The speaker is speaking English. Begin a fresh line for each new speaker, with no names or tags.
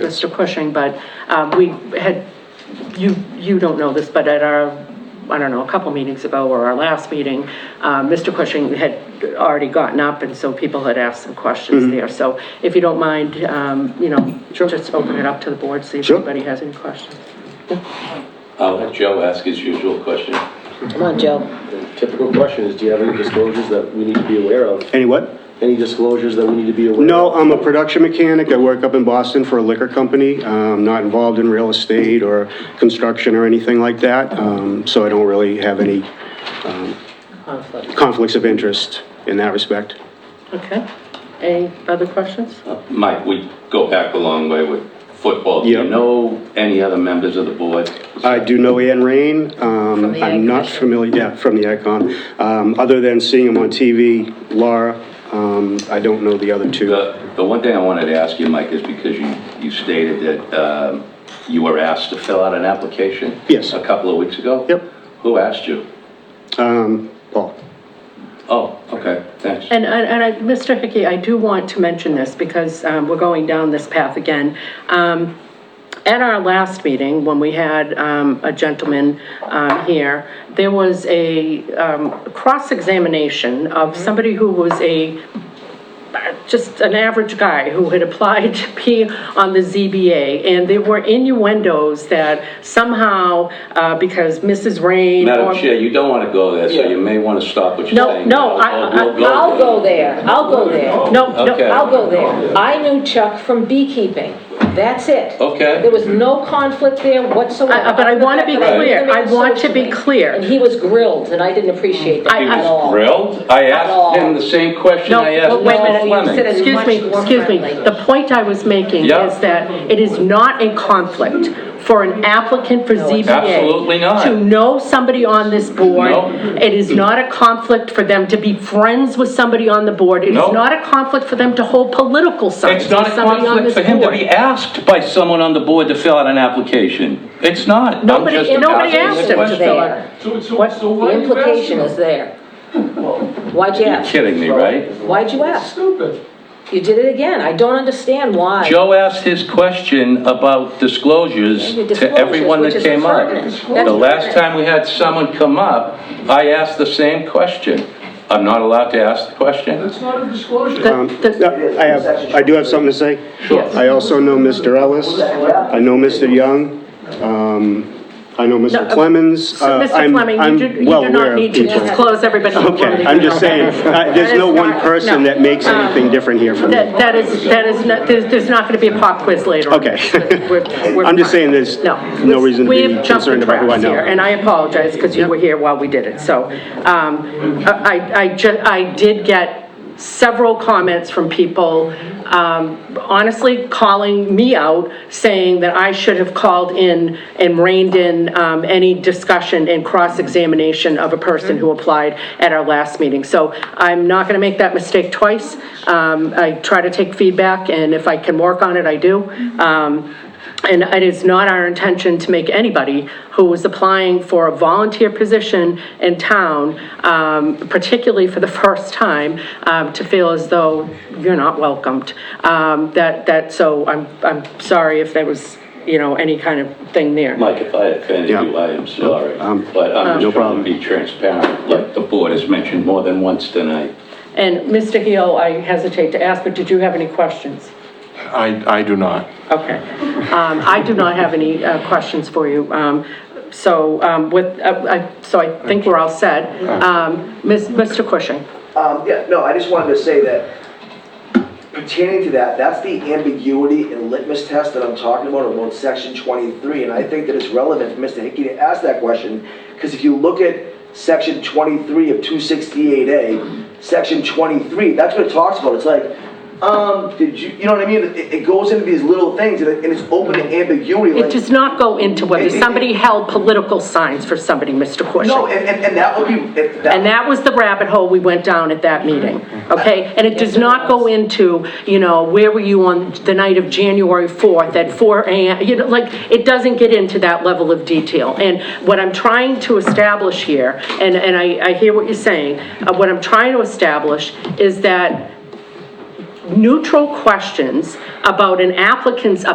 Mr. Cushing, but um, we had, you, you don't know this, but at our, I don't know, a couple meetings ago or our last meeting, uh, Mr. Cushing had already gotten up and so people had asked some questions there. So if you don't mind, um, you know, just open it up to the board, see if
Sure.
anybody has any questions.
I'll let Joe ask his usual question.
Come on, Joe.
Typical question is, do you have any disclosures that we need to be aware of?
Any what?
Any disclosures that we need to be aware of?
No, I'm a production mechanic. I work up in Boston for a liquor company. Uh, I'm not involved in real estate or construction or anything like that, um, so I don't really have any um, conflicts of interest in that respect.
Okay? Any other questions?
Uh, Mike, we go back a long way with football. Do you
Yeah.
know any other members of the board? Uh,
I do know Ann Rain. From
the Ag
I'm not
Commission.
familiar, yeah, from the Icon. Um Other than seeing him on TV, Laura, um, I don't know the other two.
The, the one thing I wanted to ask you, Mike, is because you, you stated that um, you were asked to fill out an application.
Yes.
A couple of weeks ago?
Yep.
Who asked you?
Um, Paul.
Oh, okay, thanks.
And, and, and I, Mr. Hickey, I do want to mention this because, um, we're going down this path again. Um, at our last meeting, when we had, um, a gentleman, um, here, there was a, um, cross-examination of somebody who was a just an average guy who had applied to be on the ZBA, and there were innuendos that somehow, uh, because Mrs. Rain. or-
Madam Chair, you don't want to go there, so you may want to stop what you're
No,
saying.
no, I-
I'll-
I-
we'll
Uh, I'll go there, Oh. I'll go there.
No, no,
Okay.
I'll go there. I knew Chuck from beekeeping. That's it.
Okay.
There was no conflict there whatsoever.
I- I- but I wanna be
But I knew
clear.
him
I want to be
socially.
clear.
And he was grilled, and I didn't appreciate that
I-
He
I-
at all.
was grilled? I
all.
asked him the same question
No,
I asked
but wait a
Mr.
minute,
Fleming.
said it
excuse
much
me,
more
excuse me.
friendly.
The point I was making
Yeah.
is that it is not a conflict for an applicant for ZBA.
Absolutely not.
To know somebody on this board.
No.
It is not a conflict for them to be friends with somebody on the board. It is
No.
not a conflict for them to hold political signs
It's
with
not a
somebody on
conflict
this
for him to
board.
be asked by someone on the board to fill out an application. It's not. I'm
Nobody-
just
nobody
asking the
asked him to
question.
fill out-
There.
So, so,
What-
so
The
why are you asking
implication is
them?
there. Why'd you
You're
ask?
kidding me, right?
Why'd you ask?
Stupid.
You did it again. I don't understand why.
Joe asked his question about disclosures
Your
to everyone
disclosures,
that
which is
came up.
pertinent. That's
The last
pertinent.
time we had someone come up, I asked the same question. I'm not allowed to ask the question.
That's not a disclosure.
The-
Um, I have, I do have something to say.
Sure.
I also know Mr. Ellis. I know Mr. Young. Um, I know
No,
Mr.
uh,
Clemens.
So,
Uh,
Mr.
I'm-
Fleming,
I'm
you do, you
well
do
aware
not
of
need to
people.
disclose everybody. in the world.
Okay, I'm just saying, uh, there's no one person that makes anything different here from me.
Uh, That, that is, that is, not- there's, there's not gonna be a pop quiz later. on.
Okay.
We're- we're
I'm just
fine.
saying there's
No.
no reason to
We
be
have jumped the
concerned about who I
tracks
know.
here, and I apologize, because you were here while we did it, so, um, I, I ju, I did get several comments from people, um, honestly calling me out, saying that I should have called in and reined in, um, any discussion and cross-examination of a person who applied at our last meeting. So I'm not gonna make that mistake twice, um, I try to take feedback, and if I can work on it, I do. Um, and it is not our intention to make anybody who is applying for a volunteer position in town, um, particularly for the first time, um, to feel as though you're not welcomed. Um, That, that, so I'm, I'm sorry if there was, you know, any kind of thing there.
Mike, if I offended
Yeah.
you, I am sorry.
Um,
But I'm
no
just trying
problem.
to be transparent, like the board has mentioned more than once tonight.
And Mr. Heel, I hesitate to ask, but did you have any questions?
I, I do not.
Okay. Um, I do not have any uh, questions for you. Um, So um, with, uh, I- so I think we're all set. Um, Ms- Mr. Cushing?
Um, yeah, no, I just wanted to say that pertaining to that, that's the ambiguity in litmus test that I'm talking about about section twenty-three, and I think that it's relevant for Mr. Hickey to ask that question, because if you look at section twenty-three of two sixty-eight A, section twenty-three, that's what it talks about, it's like, um, did you, you know what I mean? It, it goes into these little things, and it, and it's open to ambiguity,
It
like.
does not go into whether somebody held political signs for somebody, Mr.
No,
Cushing.
and, and, and that would be, it-
And that was the rabbit hole we went down at that meeting, okay? And it does not go into, you know, where were you on the night of January 4th at 4 AM? You know, like, it doesn't get into that level of detail. And what I'm trying to establish here, and, and I, I hear what you're saying, uh, what I'm trying to establish is that neutral questions about an applicant's